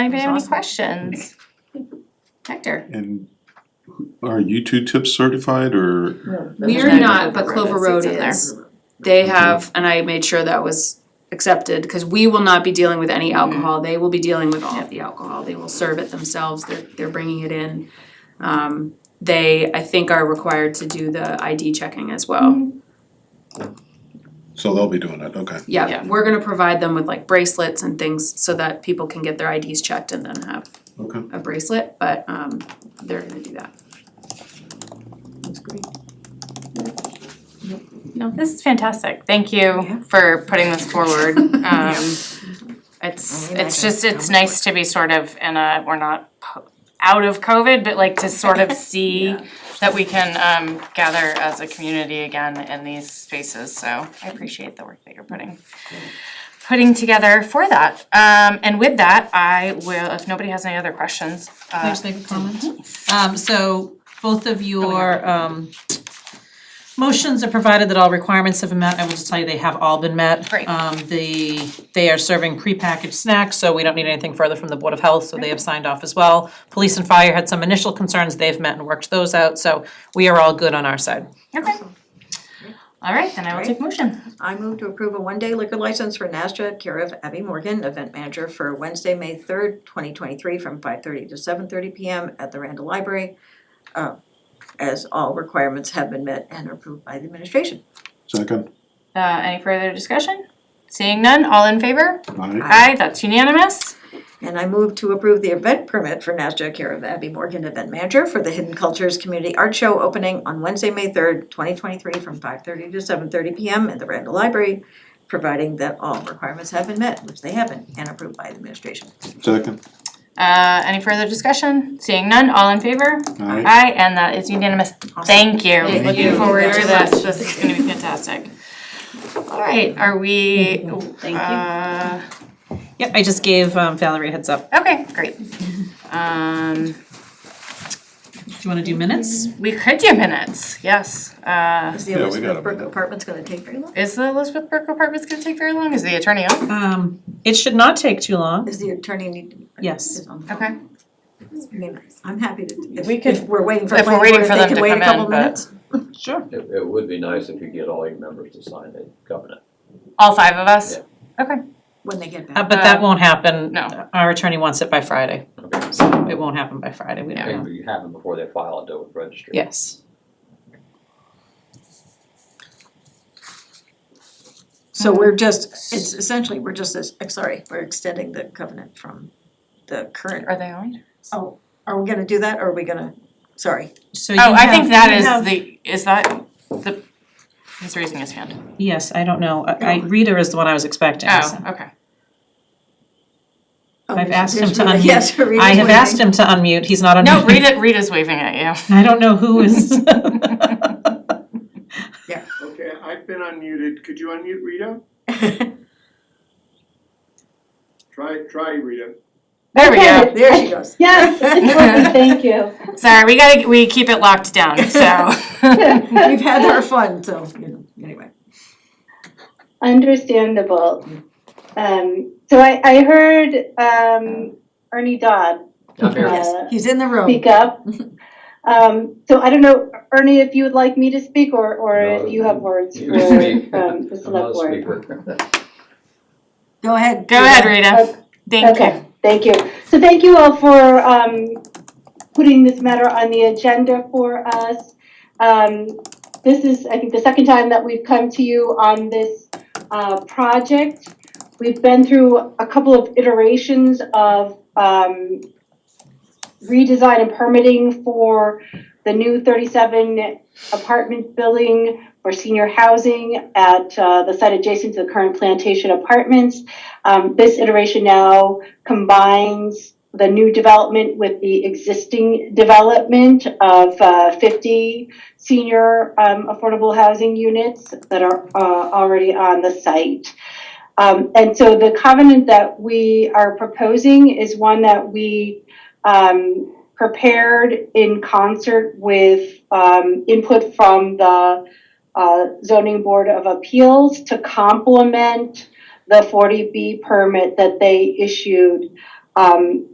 Anybody have any Awesome. questions? Hector? And who- are you two tips certified or? We are Yeah, not, but Clover Clover Road Road is- it's is. They have, and I made sure that was accepted, cause we will not be dealing with Mm-hmm. any alcohol, they will be dealing with all of the alcohol, they will serve it themselves, they're, they're bringing it in. Um, they, I think, are required to do the ID checking as Mm-hmm. well. So they'll be doing it, okay. Yeah. Yeah, we're gonna provide them with like bracelets and things so that people can get their IDs checked and then have Okay. a bracelet, but, um, they're gonna do that. That's great. No, this is fantastic. Thank you for putting this forward. Um, it's, it's just, it's nice to be sort of in a, we're not po- out of COVID, but like to sort of see that we can um gather as a community again in these spaces, so I appreciate the work that you're putting putting together for that. Um, and with that, I will, if nobody has any other questions, Can I uh, just make a comment? Um, so both of your, um, motions are provided that all requirements have been met. I will just tell you, they have all been met. Great. Um, the, they are serving prepackaged snacks, so we don't need anything further from the Board of Health, so they have signed off as well. Police and fire had some initial concerns, they've met and worked those out, so we are all good on our side. okay. All right, then I will take motion. I move to approve a one-day liquor license for Nasdaq, care of Abby Morgan, event manager for Wednesday, May third, twenty twenty-three, from five thirty to seven thirty P M at the Randall Library. uh, As all requirements have been met and approved by the administration. Second, Uh, any further discussion? Seeing none, all in favor? aye, Aye, that's unanimous. And I move to approve the event permit for Nasdaq, care of Abby Morgan, event manager for the Hidden Cultures Community Art Show opening on Wednesday, May third, twenty twenty-three, from five thirty to seven thirty P M at the Randall Library, providing that all requirements have been met, which they haven't, and approved by the administration. second, Uh, any further discussion? Seeing none, all in favor? aye, Aye, and that is unanimous. Thank you. Thank Looking you forward to very this. much. This is gonna be fantastic. All right, are we, uh, Yep, I just gave um, Valerie a heads up. okay, great. Um, Do you wanna do minutes? we could do minutes, yes. Uh, Is the Yeah, we Elizabeth gotta Brook move it. apartment's gonna take very long? is the Elizabeth Burke apartments gonna take very long? Is the attorney on? Um, it should not take too long. Is the attorney need? to- Yes. is on the phone? Okay, I mean, I'm happy to, if, We could- if we're waiting for. if we're planning waiting board, for them to come They can wait a couple in, but- minutes. Sure. It, it would be nice if you get all your members to sign the covenant. all five of us? Okay. When they get Uh, back. but that won't happen. Um, No. Our attorney wants it by Friday, Okay. so it won't happen by Friday, we don't know. And you have them before they file it though with registry. Yes. Um, So we're just, it's essentially, we're just, as- I'm sorry, we're extending the covenant from the current, Are they on? oh, are we gonna do that, or are we gonna, sorry. So you Oh, I have- think that you is have- the, is that the, he's raising his hand. Yes, I don't know. I, I, Rita is the one I was expecting. so. Oh, okay. Oh, I've there's- asked him there's to Rita. unmute. Yes, Rita's I have waiting. asked him to unmute. He's not unmuted. No, Rita, Rita's waving at you. I don't know who is. Okay, I've been unmuted. Could you unmute Rita? Try, try Rita. There we go. There she goes. Yes, lovely, thank you. Sorry, we gotta, we keep it locked down, so. We've had our fun, so, you know, anyway. Understandable. Um, so I, I heard, um, Ernie Dodd, I'm here. uh, He's in the room. speak up. Um, so I don't know, Ernie, if you would like me to speak or, or if you have words for, You speak. um, the I'm not a select board. speaker. Go ahead. Go ahead, Rita. Thank you. Okay, thank you. So thank you all for um putting this matter on the agenda for us. Um this is, I think, the second time that we've come to you on this uh project. We've been through a couple of iterations of um redesign and permitting for the new thirty-seven apartment building for senior housing at uh the site adjacent to the current plantation apartments. Um, this iteration now combines the new development with the existing development of uh, 50 senior um, affordable housing units that are uh, already on the site. Um, and so the covenant that we are proposing is one that we um, prepared in concert with um, input from the uh, Zoning Board of Appeals to complement the 40B permit that they issued um,